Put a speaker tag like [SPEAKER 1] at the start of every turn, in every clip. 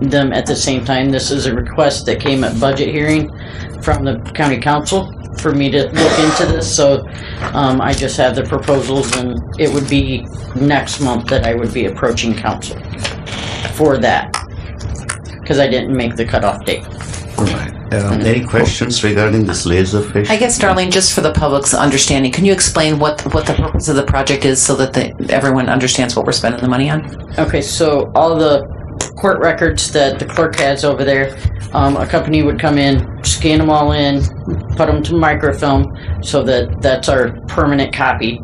[SPEAKER 1] them at the same time. This is a request that came at budget hearing from the county council for me to look into this, so um, I just have the proposals, and it would be next month that I would be approaching council for that, because I didn't make the cutoff date.
[SPEAKER 2] All right. Um, any questions regarding this laser fish?
[SPEAKER 3] I guess, Darlene, just for the public's understanding, can you explain what, what the purpose of the project is so that the, everyone understands what we're spending the money on?
[SPEAKER 1] Okay, so all the court records that the clerk has over there, um, a company would come in, scan them all in, put them to microfilm, so that that's our permanent copy,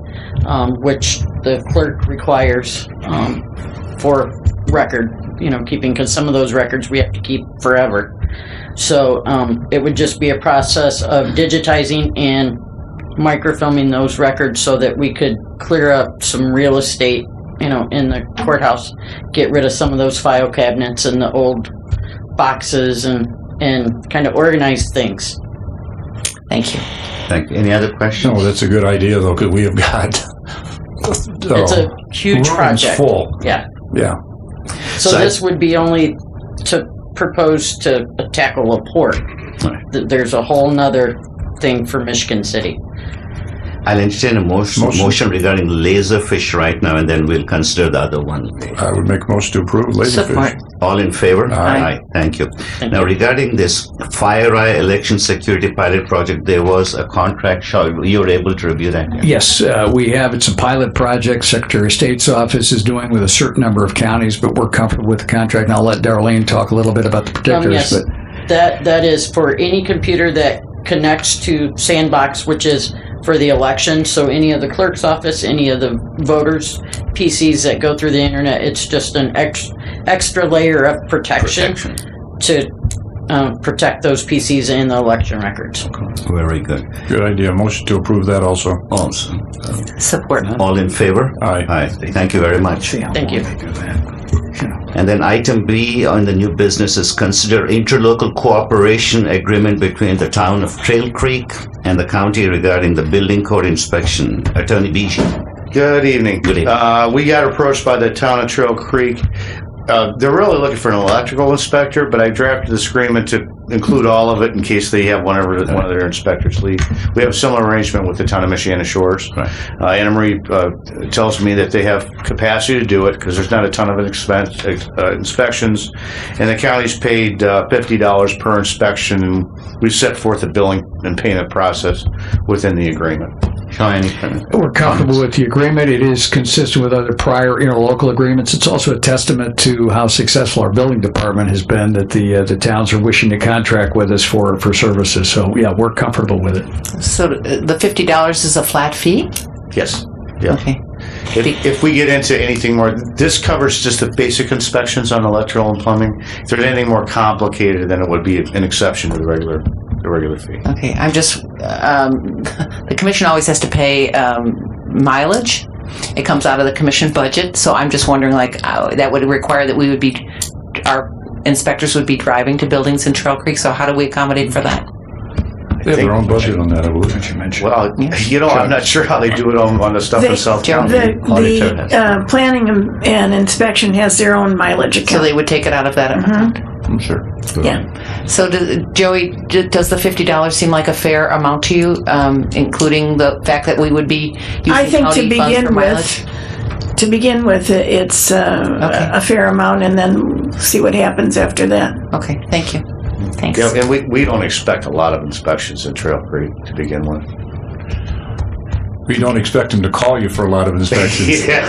[SPEAKER 1] um, which the clerk requires, um, for record, you know, keeping, because some of those records we have to keep forever. So, um, it would just be a process of digitizing and microfilming those records so that we could clear up some real estate, you know, in the courthouse, get rid of some of those file cabinets and the old boxes and, and kind of organize things.
[SPEAKER 3] Thank you.
[SPEAKER 2] Thank you. Any other questions?
[SPEAKER 4] No, that's a good idea though, because we have got.
[SPEAKER 1] It's
[SPEAKER 4] uh,
[SPEAKER 1] a huge
[SPEAKER 4] rooms
[SPEAKER 1] project.
[SPEAKER 4] Full,
[SPEAKER 1] Yeah.
[SPEAKER 4] yeah.
[SPEAKER 1] So
[SPEAKER 2] So I-
[SPEAKER 1] this would be only to propose to tackle a port.
[SPEAKER 2] Right.
[SPEAKER 1] Th- There's a whole nother thing for Michigan City.
[SPEAKER 2] I'll entertain a motion,
[SPEAKER 4] Motion.
[SPEAKER 2] motion regarding laser fish right now, and then we'll consider the other one.
[SPEAKER 4] I would make most to approve
[SPEAKER 3] Support.
[SPEAKER 4] laserfish.
[SPEAKER 2] All in favor?
[SPEAKER 4] Aye.
[SPEAKER 2] Thank you. Now, regarding this FireEye election security pilot project, there was a contract. Shaw, you were able to review that?
[SPEAKER 5] Yes, uh, we have. It's a pilot project Secretary of State's office is doing with a certain number of counties, but we're comfortable with the contract. And I'll let Darlene talk a little bit about the
[SPEAKER 1] Um, yes,
[SPEAKER 5] particulars. But
[SPEAKER 1] that that is for any computer that connects to Sandbox, which is for the election. So any of the clerk's office, any of the voters' PCs that go through the internet, it's just an ex- extra layer of protection,
[SPEAKER 2] Protection.
[SPEAKER 1] to um, protect those PCs and the election records.
[SPEAKER 2] Very good.
[SPEAKER 4] Good idea. Motion to approve that also.
[SPEAKER 2] Awesome.
[SPEAKER 3] Support.
[SPEAKER 2] All in favor?
[SPEAKER 4] Aye.
[SPEAKER 2] Aye. Thank you very much.
[SPEAKER 1] Thank you.
[SPEAKER 2] And then item B on the new business is consider interlocal cooperation agreement between the town of Trail Creek and the county regarding the building code inspection. Attorney Beechey.
[SPEAKER 6] Good evening.
[SPEAKER 2] Good evening.
[SPEAKER 6] Uh, we got approached by the town of Trail Creek. Uh, they're really looking for an electrical inspector, but I drafted this agreement to include all of it in case they have one of, one of their inspectors leave. We have a similar arrangement with the town of Michiana Shores.
[SPEAKER 2] Right.
[SPEAKER 6] Uh, Anna Marie uh, tells me that they have capacity to do it because there's not a ton of expense, uh, inspections, and the county's paid uh, fifty dollars per inspection. and We set forth a billing and payment process within the agreement.
[SPEAKER 2] Shaw, any comment?
[SPEAKER 5] we're comfortable with the agreement. It is consistent with other prior interlocal agreements. It's also a testament to how successful our building department has been that the uh, the towns are wishing to contract with us for for services. So yeah, we're comfortable with it.
[SPEAKER 3] So uh, the $50 is a flat fee?
[SPEAKER 6] Yes.
[SPEAKER 3] Okay.
[SPEAKER 6] If, if we get into anything more, this covers just the basic inspections on electrical and plumbing. If there's anything more complicated, then it would be an exception to the regular, the regular fee.
[SPEAKER 3] Okay. I'm just, um, the commission always has to pay um, mileage. It comes out of the commission budget. So I'm just wondering, like, uh, that would require that we would be, our inspectors would be driving to buildings in Trail Creek. So how do we accommodate for that?
[SPEAKER 4] They have their own budget on that, I believe.
[SPEAKER 5] you mentioned.
[SPEAKER 6] Well, Uh, you know, I'm not sure how they do it on, on the stuff in
[SPEAKER 7] They-
[SPEAKER 6] South
[SPEAKER 3] Joe,
[SPEAKER 6] County.
[SPEAKER 7] The,
[SPEAKER 6] Auditor
[SPEAKER 7] the
[SPEAKER 6] has-
[SPEAKER 7] uh, planning and- and inspection has their own mileage
[SPEAKER 3] So
[SPEAKER 7] account.
[SPEAKER 3] they would take it out of that amount?
[SPEAKER 2] I'm sure.
[SPEAKER 4] um,
[SPEAKER 7] Yeah.
[SPEAKER 3] So, do, Joey, d- does the fifty dollars seem like a fair amount to you, um, including the fact that we would be using
[SPEAKER 7] I think to
[SPEAKER 3] county funds for
[SPEAKER 7] begin
[SPEAKER 3] mileage?
[SPEAKER 7] with, to begin with, it- it's uh,
[SPEAKER 3] Okay.
[SPEAKER 7] a fair amount and then see what happens after that.
[SPEAKER 3] Okay, thank you. Thanks.
[SPEAKER 6] Yeah, and we, we don't expect a lot of inspections in Trail Creek to begin with.
[SPEAKER 4] We don't expect them to call you for a lot of inspections.
[SPEAKER 6] Yeah.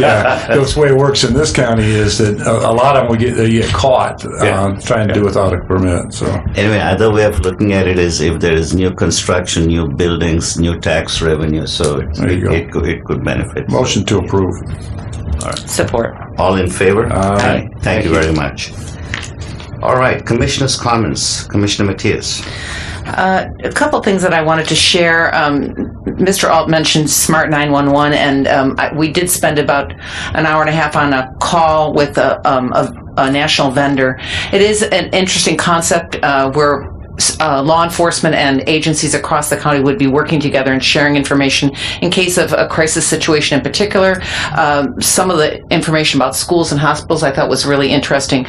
[SPEAKER 4] That's the way it works in this county is that a, a lot of them we get, they get caught, um, trying to do without a permit, so.
[SPEAKER 2] Anyway, other way of looking at it is if there is new construction, new buildings, new tax revenue, so it,
[SPEAKER 4] There
[SPEAKER 2] it,
[SPEAKER 4] you go.
[SPEAKER 2] it, could, it could benefit.
[SPEAKER 4] Motion to approve.
[SPEAKER 3] Support.
[SPEAKER 2] All in favor?
[SPEAKER 4] Aye.
[SPEAKER 2] Thank you very much. All right, Commissioner's comments. Commissioner Matthias.
[SPEAKER 3] Uh, a couple things that I wanted to share. Um, Mr. Alt mentioned Smart 911, and um, I, we did spend about an hour and a half on a call with a, um, a, a national vendor. It is an interesting concept uh, where uh, law enforcement and agencies across the county would be working together and sharing information in case of a crisis situation in particular. Um, some of the information about schools and hospitals I thought was really interesting.